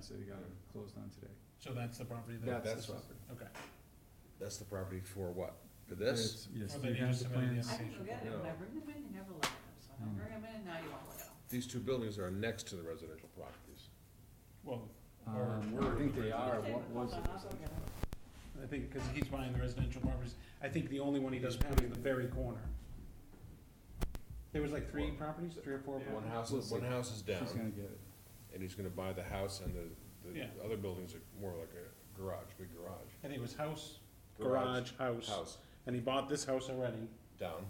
so they got it closed on today. So that's the property that, That's That's- the property. okay. That's the property for what? For But this? it's- Yes, Oh, do they you have just the submitted the plans? I didn't forget No. them, I bring them in, you never look at them, so Mm. I bring them in, now you all look at them. These two buildings are next to the residential properties. Well, or- Um, I think they are, Okay, what was hold on, I'll go it? get 'em. I think, because he keeps buying the residential properties, I think the only one he doesn't have is the very corner. There was like three properties, three or four. One properties? house, is- one house is She's gonna down, get it. and he's gonna buy the house, and the, the Yeah. other buildings are more like a garage, big garage. I think it was house, garage, house, House, and he bought this house already. down.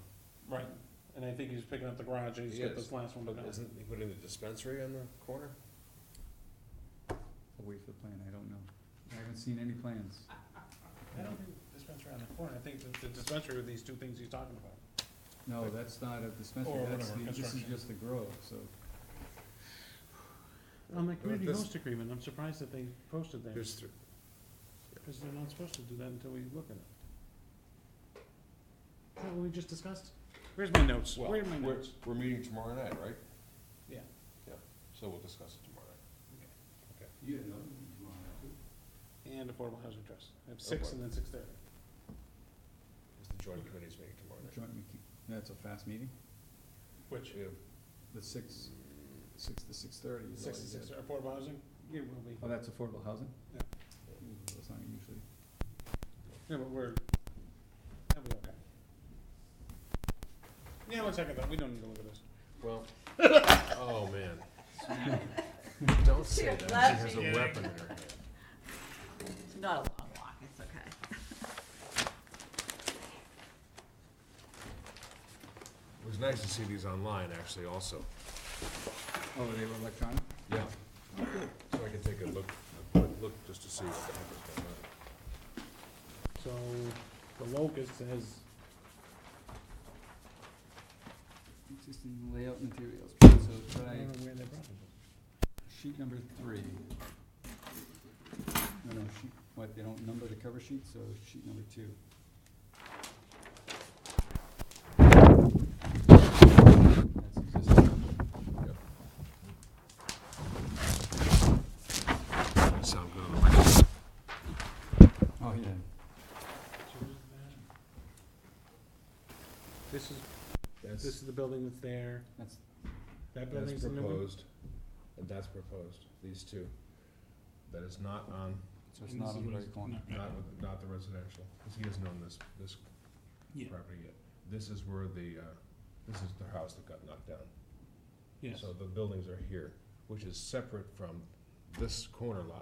Right. And I think he's picking up the garage, and he's He got is, this last one. But done. isn't he putting the dispensary on the corner? I'll wait for the plan, I don't know. I haven't seen any plans. I don't think the dispensary on the corner, I think the the dispensary are these two things he's talking about. No, that's not a dispensary, Or that's whatever, the, this is construction. just the grow, so. On the But community this- host agreement, I'm surprised that they posted that, Here's thr- because they're not supposed to do that until we look at it. Is that what we just discussed? Where's my notes? well, Where are my we're- notes? We're meeting tomorrow night, right? Yeah. Yeah, so we'll discuss it tomorrow night. You know. And affordable housing trust. I have six Okay. and then six thirty. Because the joint committee's meeting tomorrow night. Joint, meeting- that's a fast meeting, Which? Yeah. the six, six to six thirty is all Six you and six, get. affordable housing? It will be. Oh, that's affordable housing? Yeah. Ooh, That's not usually, Yeah, but we're, that'll be okay. Yeah, one second though, we don't need to look at this. Well, oh, man. Don't say She that, left she has me. a weapon in her hand. It's not a long walk, it's okay. It was nice to see these online, actually, also. oh, they were electronic? Yeah. So I can take a look, a quick look, just to see what the heck is going on. So, the locust says, Existing layout materials, so I try don't know where they brought it. sheet number three. No, no, sheet, what, they don't number the cover sheet, so sheet number two. That's existing. Doesn't Sound good on the microphone. Oh, yeah. This is, this is the building that's there, That's, that That's building's the new one. proposed, and that's proposed, these two. That is not on, so it's And not this is on the what right he's- corner. no, no. not, with- not the residential, because he hasn't owned this, this Yeah. property yet. This is where the, uh, this is the house that got knocked down. Yes, So the buildings are here, which is separate from this corner lot.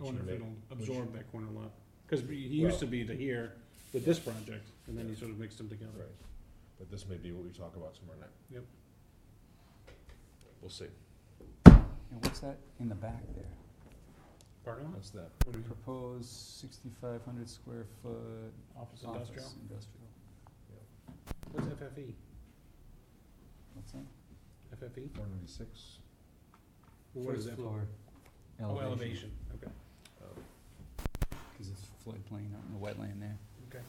I wonder if Should it'll we- absorb that corner lot, cause he he used Well- to be to here with this project, and then he sort of mixed them Right, together. but this may be what we talk about tomorrow night. Yep. We'll see, And what's that in the back there? Parking lot? that's that. What do we- Proposed sixty-five hundred square foot Office office industrial? industrial. What's E? FFE? What's that? FFE? Four ninety-six. E? Well, What is that? for? Oh, elevation, okay. Cause it's floodplain, not in the wetland there. Okay.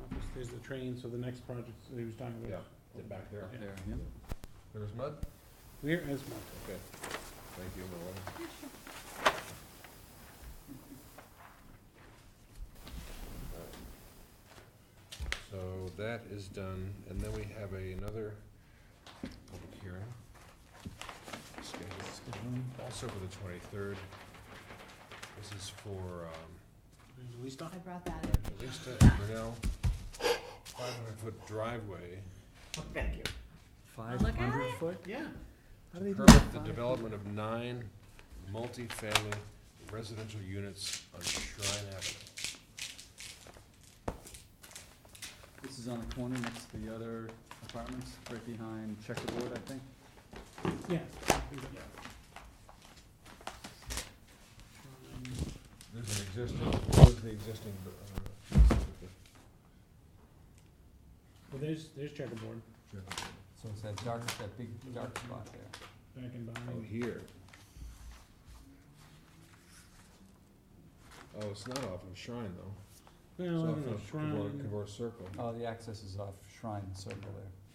Office, there's the train, so the next project that he was talking about. Yeah, the back there. Yeah. There, yeah. There's mud? Where is my, Okay. Thank you, Marlon. So that is done, and then we have a- another public hearing. scheduled Also for the twenty-third. This is for, um, Lista? I brought that in. Evangelista and Brunel, five hundred foot driveway. Thank you. Five Look at hundred it. foot? Yeah. How do they do permit the that? development of nine multifamily residential units on Shrine Avenue. This is on the corner next to the other apartments, right behind checkerboard, I think. Yeah. There's an existing, what is the existing, uh, Well, there's, there's checkerboard. So it's that dark, that big dark spot there. Back and oh, behind. here. Oh, it's not off of Shrine though. Well, I It's don't off know, of Cavour- shrine, Cavour Circle. Oh, the access is off Shrine Circle there.